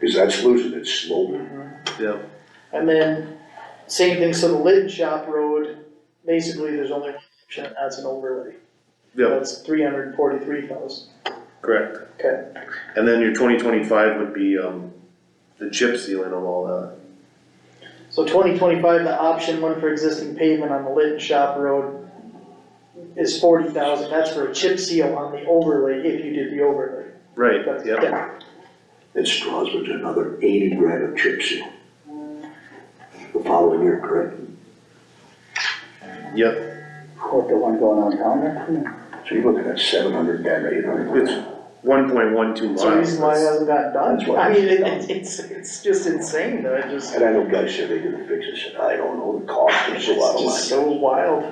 Cause that's losing its slope. yeah, And then, same thing, so the Litten Shop Road, basically, there's only one option, that's an overlay. yeah, That's three hundred and forty-three thousand, correct. okay, And then your twenty twenty-five would be, um, the chip sealing of all that. so twenty twenty-five, the option one for existing pavement on the Litten Shop Road is forty thousand, that's for a chip seal on the overlay, if you did the overlay. Right, That's- yeah, yeah. That Strasburg's another eighty grand of chip seal. The following year, correct? yep, What, the one going on down there? So you're looking at seven hundred, grand, eight hundred. it's one point one two miles. That's the reason why it hasn't gotten That's done, why- I mean, it- it's, it's, it's just insane, though, it just, And I know guys said they're gonna fix this, and I don't know, the cost it's is a lot of money. just so wild.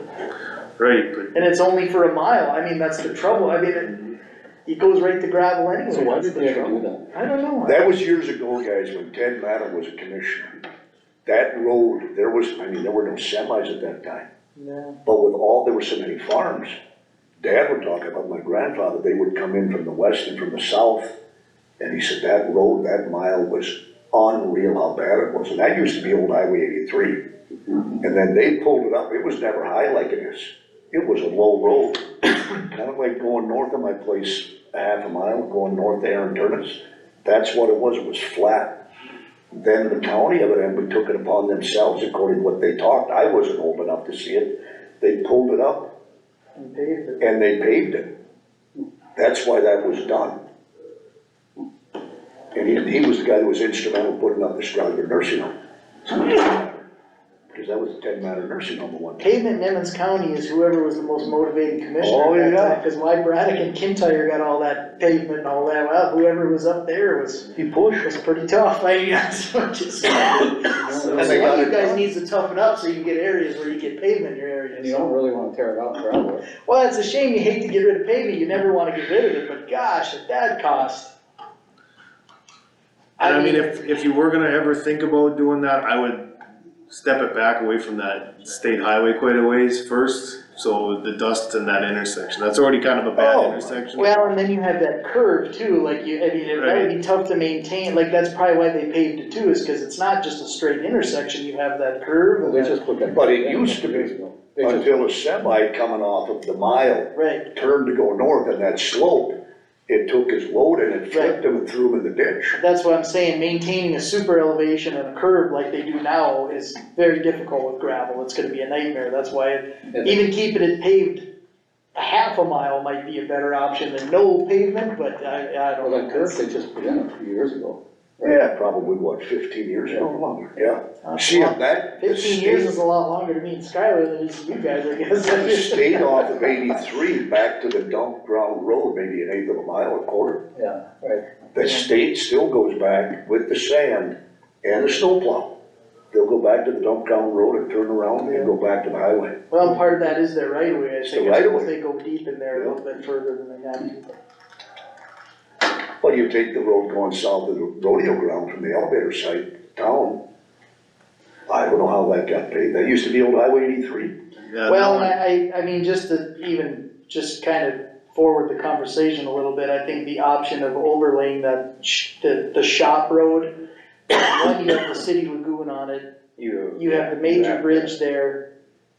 Right, but And it's only for a mile, I mean, that's the trouble, I mean, it, it goes right to gravel anyway. So why that's did the they ever trouble. do that? I don't know. That was years ago, guys, when Ted Latta was a commissioner. That road, there was, I mean, there were no semis at that time, No. but with all, there were so many farms. Dad would talk about my grandfather, they would come in from the west and from the south, and he said that road, that mile was unreal how bad it was, and that used to be old Highway eighty-three. And then they pulled it up, it was never high like it is, it was a low road, kind of like going north of my place, a half a mile, going north to Aaron Turnitz. That's what it was, it was flat. Then the county evidently took it upon themselves, according to what they talked, I wasn't old enough to see it. They pulled it up And paved it. and they paved it. That's why that was done. And he, he was the guy that was instrumental in putting up the Strasburg nursing home. Because that was the Ted Matter nursing home at one time. Pavement in Emmons County is whoever was the most motivated Oh, commissioner at that time, yeah. cause why Braddock and Kintyre got all that pavement and all that, well, whoever was up there was, He pushed. was pretty tough, I guess, I'm just. So, And they got one of it you guys done. needs to toughen up so you can get areas where you get pavement in your And you area, don't really wanna tear it out and gravel it. well, it's a shame, you hate to get rid of pavement, you never wanna get rid of it, but gosh, at that cost. And I mean, if, if you were gonna ever think about doing that, I would step it back away from that state highway quite a ways first. So the dust in that intersection, that's already kind of a bad Oh, intersection. Well, and then you have that curve too, like you, I mean, it that would be tough to maintain, like that's probably why they paved it too, is cause it's not just a straight intersection, you have that curve. Well, and They that- just put that. But it used to be. Years ago. They just- Until a semi coming off of the mile Right, turned to go north on that slope, it took his load and it flipped him and threw him in the ditch. that's what I'm saying, maintaining a super elevation and a curve like they do now is very difficult with gravel, it's gonna be a nightmare, that's why and they- even keeping it paved a half a mile might be a better option than no pavement, but I, I don't. Well, that know. curve, they just put in a few years ago. Yeah, probably what, fifteen years ago, longer, yeah. That's a See, lot. on that, the Fifteen years is state, a lot longer to me and Skylar than it is to you guys, I guess. the state off of eighty-three back to the dump ground road, maybe an eighth of a mile, a quarter. Yeah, right. The state still goes back with the sand and the snowplow. They'll go back to the dump ground road and turn around and go back to the highway. Well, part of that is their right of way, I It's think, the right of if way. they go deep in there a little bit further than they have to. Well, you take the road going south of the rodeo ground from the elevator site down. I don't know how that got paid. That used to be old Highway eighty-three. Yeah, Well, uh, no, and I, I, I mean, just to even, just kind of forward the conversation a little bit, I think the option of overlaying that, sh- the, the shop road, one, you have the city lagoon on it, You. you have the major bridge there,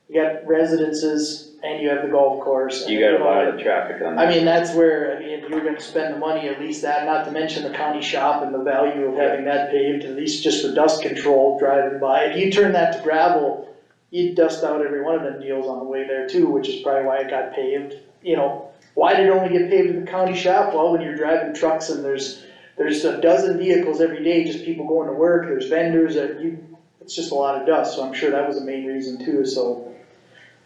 you got residences, and you have the golf course. and You got a lot all of traffic on I that. mean, that's where, I mean, if you're gonna spend the money, at least that, not to mention the county shop and the value of having that paved, at least just for dust control driving by. If you turn that to gravel, you'd dust out every one of them deals on the way there too, which is probably why it got paved, you know. Why did it only get paved at the county shop? Well, when you're driving trucks and there's, there's a dozen vehicles every day, just people going to work, there's vendors, that you, it's just a lot of dust, so I'm sure that was the main reason too, so.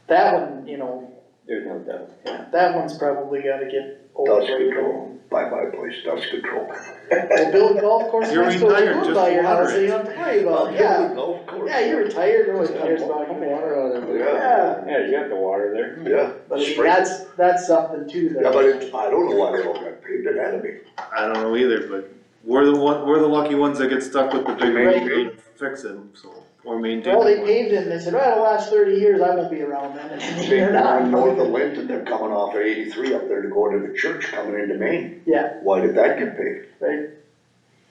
That one, you know, There's no doubt. that one's probably gotta get Dust overlaid. control, by my place, dust control. Well, build a golf course You're next to it, retired, you just buy your water house, so you don't have to worry about, it. yeah. Golf course. Yeah, you're retired, no one cares about Pump you. water out of there. Yeah, Yeah, you got the water there. Yeah. but I mean, Spring. that's, that's something too, Yeah, but that, it, I don't know why they all got paved, it had to be. I don't know either, but we're the one, we're the lucky ones that get stuck with the big Right. rain, fix them, so, or maintain. well, they them. paved it, and they said, well, it'll last thirty years, I won't be around then, and Big they're one north of not. Linton, they're coming off of eighty-three up there to go into the church coming into Maine. Yeah. Why did that get paved? Right.